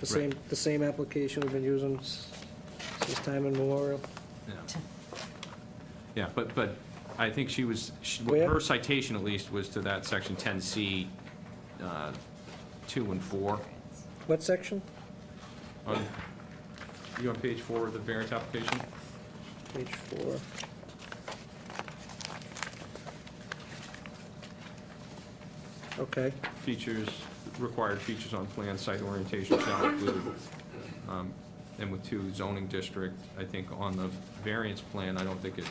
The same, the same application we've been using s- since time immemorial. Yeah. Yeah, but, but I think she was, she- Where? her citation at least was to that section 10C, uh, 2 and 4. What section? On- You on page 4 of the variance application? Page four. Okay, Features, required features on plan, site orientation shall include, um, and with two zoning district, I think on the variance plan, I don't think it,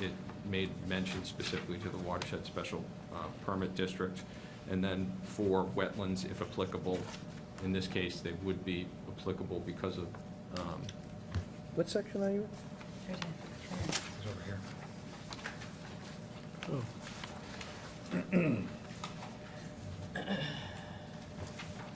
it made mention specifically to the watershed special uh, permit district. And then for wetlands, if applicable, in this case, they would be applicable because of, um, what section are you in? it's over here.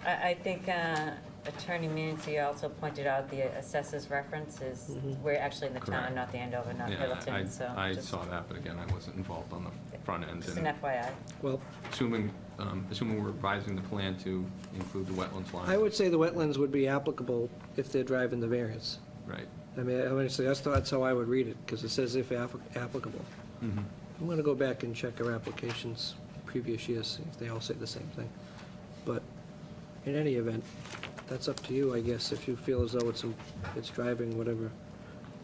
I, I think uh, Attorney Mancy also pointed out the assessors reference is, we're actually in the Correct. town, not the Andover, not Yeah, Littleton, so. I, I just- saw that, but again, I wasn't involved on the front end. Just and- an FYI. Well, Assuming, um, assuming we're revising the plan to include the wetlands line. I would say the wetlands would be applicable if they're driving the variance. Right. I mean, I would say, that's, that's how I would read it, because it says if applic- applicable. Mm-hmm. I'm gonna go back and check our applications previous years, see if they all say the same thing. But in any event, that's up to you, I guess, if you feel as though it's, a- it's driving whatever,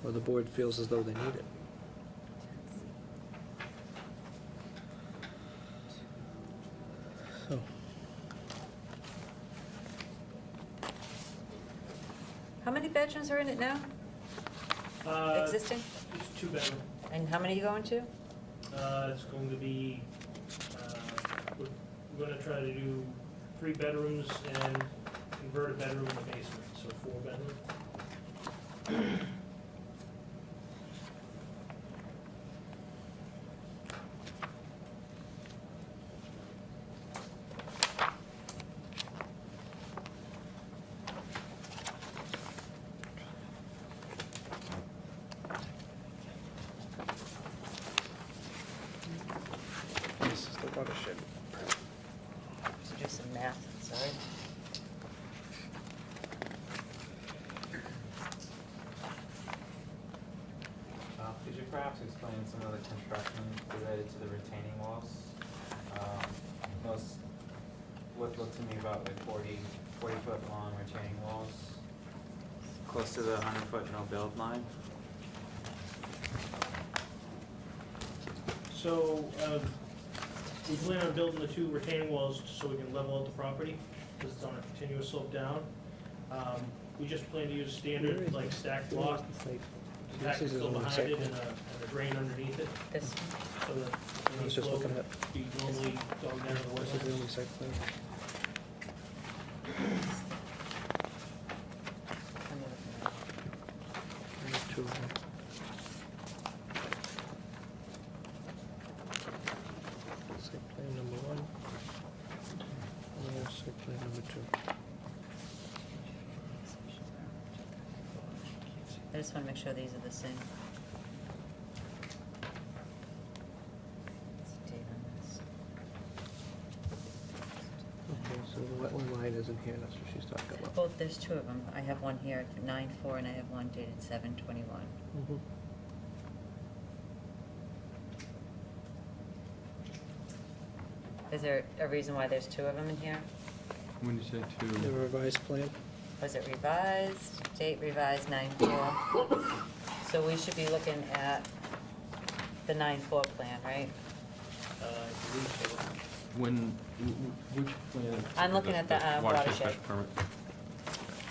or the board feels as though they need it. So, How many bedrooms are in it now, Uh, existing? It's two bedroom. And how many you going to? Uh, it's going to be, uh, we're, we're gonna try to do three bedrooms and convert a bedroom to basement, so four bedroom. This is the watershed. To do some math, sorry. Uh, Could you perhaps explain some of the construction related to the retaining walls? Um, Those, what looked to me about like 40, 40-foot long retaining walls, close to the 100-foot no-build line? So, um, we plan on building the two retaining walls so we can level out the property, because it's on a continuous slope down. Um, we just plan to use Where is standard, like stacked block, This pack is fill on the behind site. it and a, and a drain underneath it, This, so that, I was you just know, looking flow at, be normally going down to the this west is end. the only site plan. let me look at it. There's two of them. Site plan number one. And then site plan number two. I just want to make sure these are the same. It's a date on this. Okay, so the wetland line isn't here, that's what she's talking about. Both, there's two of them. I have one here, nine four, and I have one dated seven twenty-one. Mhm. Is there a reason why there's two of them in here? When you say The two, revised plan, Was it revised? Date revised nine four. So we should be looking at the nine four plan, right? Uh, I believe so. when, wh- which plan? I'm looking at the, uh, watershed. special permit.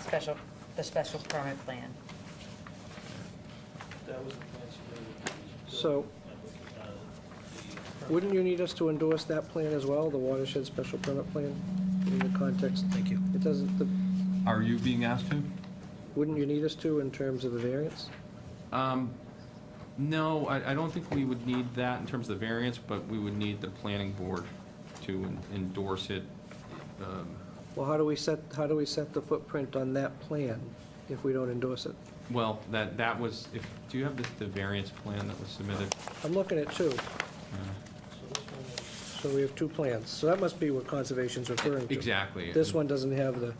Special, the special permit plan. That was the plan submitted. So- uh, wouldn't you need us to endorse that plan as well, the watershed special permit plan, in the context? Thank you. It doesn't, the- Are you being asked to? wouldn't you need us to in terms of the variance? Um, no, I, I don't think we would need that in terms of the variance, but we would need the planning board to en- endorse it. Um, Well, how do we set, how do we set the footprint on that plan if we don't endorse it? Well, that, that was, if, do you have the, the variance plan that was submitted? I'm looking at two. So this one is- So we have two plans. So that must be what conservation's referring to. Exactly. This one doesn't have the,